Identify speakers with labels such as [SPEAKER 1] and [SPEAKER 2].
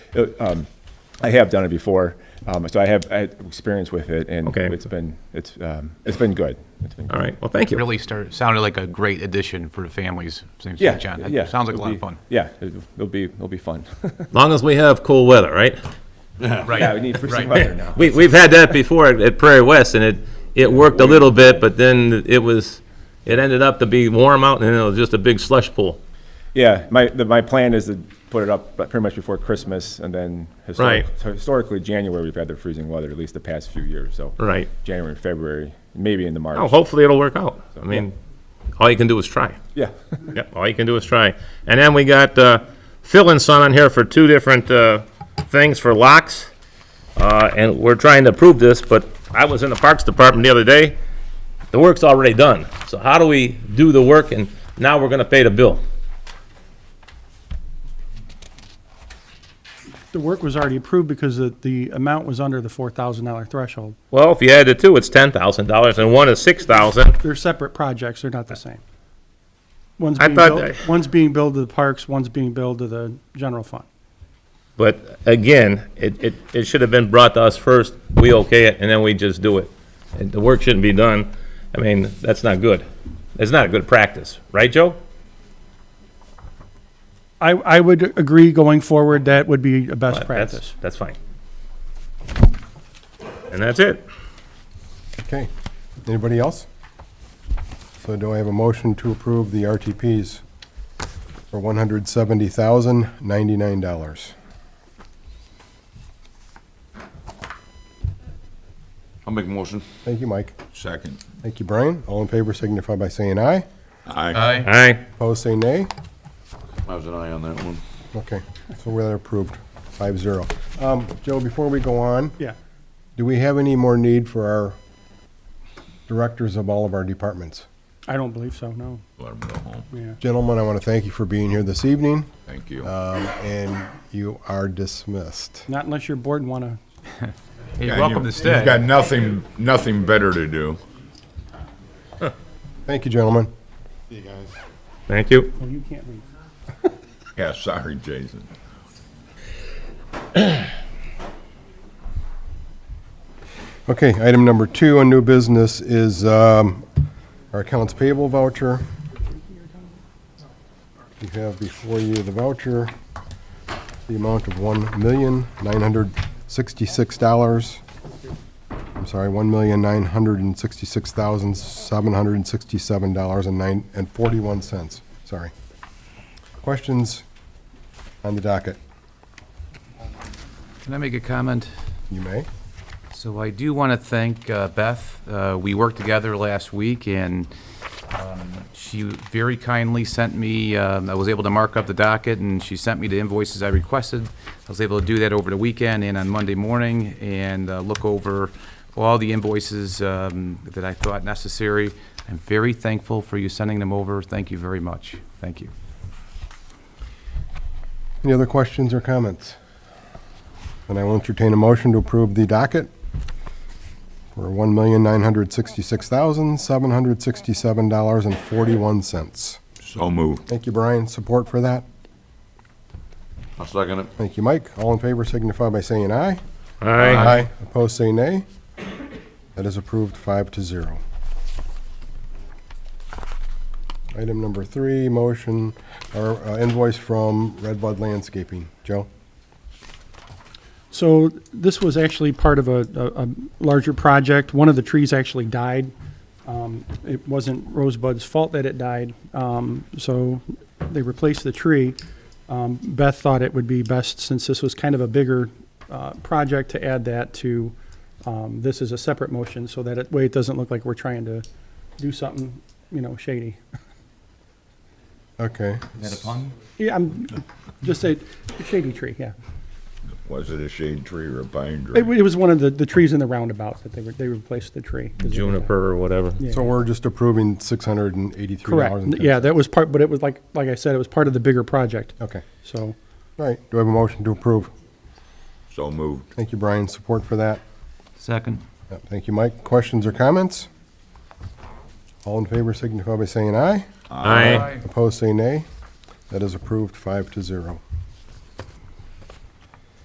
[SPEAKER 1] uh, um, I have done it before, um, so I have, I have experience with it, and
[SPEAKER 2] Okay.
[SPEAKER 1] it's been, it's, um, it's been good. It's been good.
[SPEAKER 2] All right, well, thank you.
[SPEAKER 3] Really started, sounded like a great addition for the families, St.
[SPEAKER 1] Yeah,
[SPEAKER 3] John. That
[SPEAKER 1] yeah.
[SPEAKER 3] Sounds like a
[SPEAKER 1] it'll
[SPEAKER 3] lot of
[SPEAKER 1] be-
[SPEAKER 3] fun.
[SPEAKER 1] Yeah, it'll it'll be, it'll be fun.
[SPEAKER 2] Long as we have cool weather, right?
[SPEAKER 1] Yeah,
[SPEAKER 3] Right.
[SPEAKER 1] we need for some
[SPEAKER 3] Right.
[SPEAKER 1] weather now.
[SPEAKER 2] We, we've had that before at- at Prairie West, and it, it worked a little bit, but then it was, it ended up to be warm out, and then it was just a big slush pool.
[SPEAKER 1] Yeah, my, the, my plan is to put it up but pretty much before Christmas, and then historic-
[SPEAKER 2] Right.
[SPEAKER 1] so historically, January, we've had the freezing weather, at least the past few years, so.
[SPEAKER 2] Right.
[SPEAKER 1] January, and February, maybe into March.
[SPEAKER 2] Oh, hopefully it'll work out. I mean, all you can do is try.
[SPEAKER 1] Yeah,
[SPEAKER 2] Yep, all you can do is try. And then we got uh, Phil and Son on here for two different uh, things for locks. Uh, And we're trying to prove this, but I was in the Parks Department the other day. The work's already done. So how do we do the work and now we're going to pay the bill?
[SPEAKER 4] The work was already approved because the, the amount was under the $4,000 threshold.
[SPEAKER 2] Well, if you add the two, it's $10,000 and one is 6,000.
[SPEAKER 4] They're separate projects, they're not the same. One's
[SPEAKER 2] I
[SPEAKER 4] being
[SPEAKER 2] thought
[SPEAKER 4] built,
[SPEAKER 2] that-
[SPEAKER 4] one's being billed to the parks, one's being billed to the general fund.
[SPEAKER 2] But again, it, it, it should have been brought to us first, we okay it, and then we just do it. And the work shouldn't be done, I mean, that's not good. It's not a good practice, right, Joe?
[SPEAKER 4] I, I would agree going forward, that would be a best
[SPEAKER 2] But that's,
[SPEAKER 4] practice.
[SPEAKER 2] that's fine. And that's it.
[SPEAKER 5] Okay. Anybody else? So do I have a motion to approve the RTPs for one hundred seventy thousand, ninety-nine dollars?
[SPEAKER 6] I'll make a motion.
[SPEAKER 5] Thank you, Mike.
[SPEAKER 6] Second.
[SPEAKER 5] Thank you, Brian. All in favor signify by saying aye.
[SPEAKER 6] Aye.
[SPEAKER 3] Aye.
[SPEAKER 2] All right,
[SPEAKER 5] Opposed, say nay.
[SPEAKER 6] I was an aye on that one.
[SPEAKER 5] Okay, so we're approved, five zero. Um, Joe, before we go on,
[SPEAKER 4] Yeah.
[SPEAKER 5] do we have any more need for our directors of all of our departments?
[SPEAKER 4] I don't believe so, no.
[SPEAKER 6] Let him go home.
[SPEAKER 4] Yeah.
[SPEAKER 5] Gentlemen, I want to thank you for being here this evening,
[SPEAKER 6] Thank you.
[SPEAKER 5] um, and you are dismissed.
[SPEAKER 4] Not unless your board want to
[SPEAKER 3] You're
[SPEAKER 6] And
[SPEAKER 3] welcome
[SPEAKER 6] you-
[SPEAKER 3] to stay.
[SPEAKER 6] You've got nothing, nothing better to do.
[SPEAKER 5] Thank you, gentlemen.
[SPEAKER 2] thank you.
[SPEAKER 4] Well, you can't leave.
[SPEAKER 6] Yeah, sorry, Jason.
[SPEAKER 5] Okay, item number two on new business is um, our accounts payable voucher. You have before you the voucher, the amount of $1,966. I'm sorry, $1,966,767.41. Sorry. Questions on the docket?
[SPEAKER 7] Can I make a comment?
[SPEAKER 5] You may.
[SPEAKER 7] So I do want to thank uh, Beth. Uh, We worked together last week, and um, she very kindly sent me, um, I was able to mark up the docket, and she sent me the invoices I requested. I was able to do that over the weekend and on Monday morning, and uh, look over all the invoices um, that I thought necessary. I'm very thankful for you sending them over. Thank you very much. Thank you.
[SPEAKER 5] Any other questions or comments? And I will entertain a motion to approve the docket for $1,966,767.41.
[SPEAKER 6] So moved.
[SPEAKER 5] Thank you, Brian. Support for that?
[SPEAKER 6] I'll second it.
[SPEAKER 5] Thank you, Mike. All in favor signify by saying aye.
[SPEAKER 2] All right,
[SPEAKER 5] Aye. Opposed, say nay. That is approved five to zero. Item number three, motion, or uh, invoice from Redbud Landscaping. Joe?
[SPEAKER 4] So this was actually part of a, a, a larger project. One of the trees actually died. Um, it wasn't Rosebud's fault that it died. Um, so they replaced the tree. Um, Beth thought it would be best, since this was kind of a bigger, uh, project, to add that to, um, this is a separate motion, so that it, way it doesn't look like we're trying to do something, you know, shady.
[SPEAKER 5] Okay.
[SPEAKER 7] Is that a pun?
[SPEAKER 4] Yeah, I'm, just a shady tree, yeah.
[SPEAKER 6] Was it a shade tree or a pine
[SPEAKER 4] It,
[SPEAKER 6] tree?
[SPEAKER 4] wa- it was one of the, the trees in the roundabout that they were, they replaced the tree. 'cause it was-
[SPEAKER 2] juniper or whatever.
[SPEAKER 4] Yeah.
[SPEAKER 5] So we're just approving six hundred and eighty-three dollars.
[SPEAKER 4] Correct. Yeah, that was part, but it was like, like I said, it was part of the bigger project.
[SPEAKER 5] Okay.
[SPEAKER 4] So
[SPEAKER 5] All right. Do I have a motion to approve?
[SPEAKER 6] So moved.
[SPEAKER 5] Thank you, Brian. Support for that.
[SPEAKER 7] Second.
[SPEAKER 5] Yep, Thank you, Mike. Questions or comments? All in favor signify by saying aye.
[SPEAKER 2] Aye,
[SPEAKER 5] Opposed, say nay. That is approved five to zero.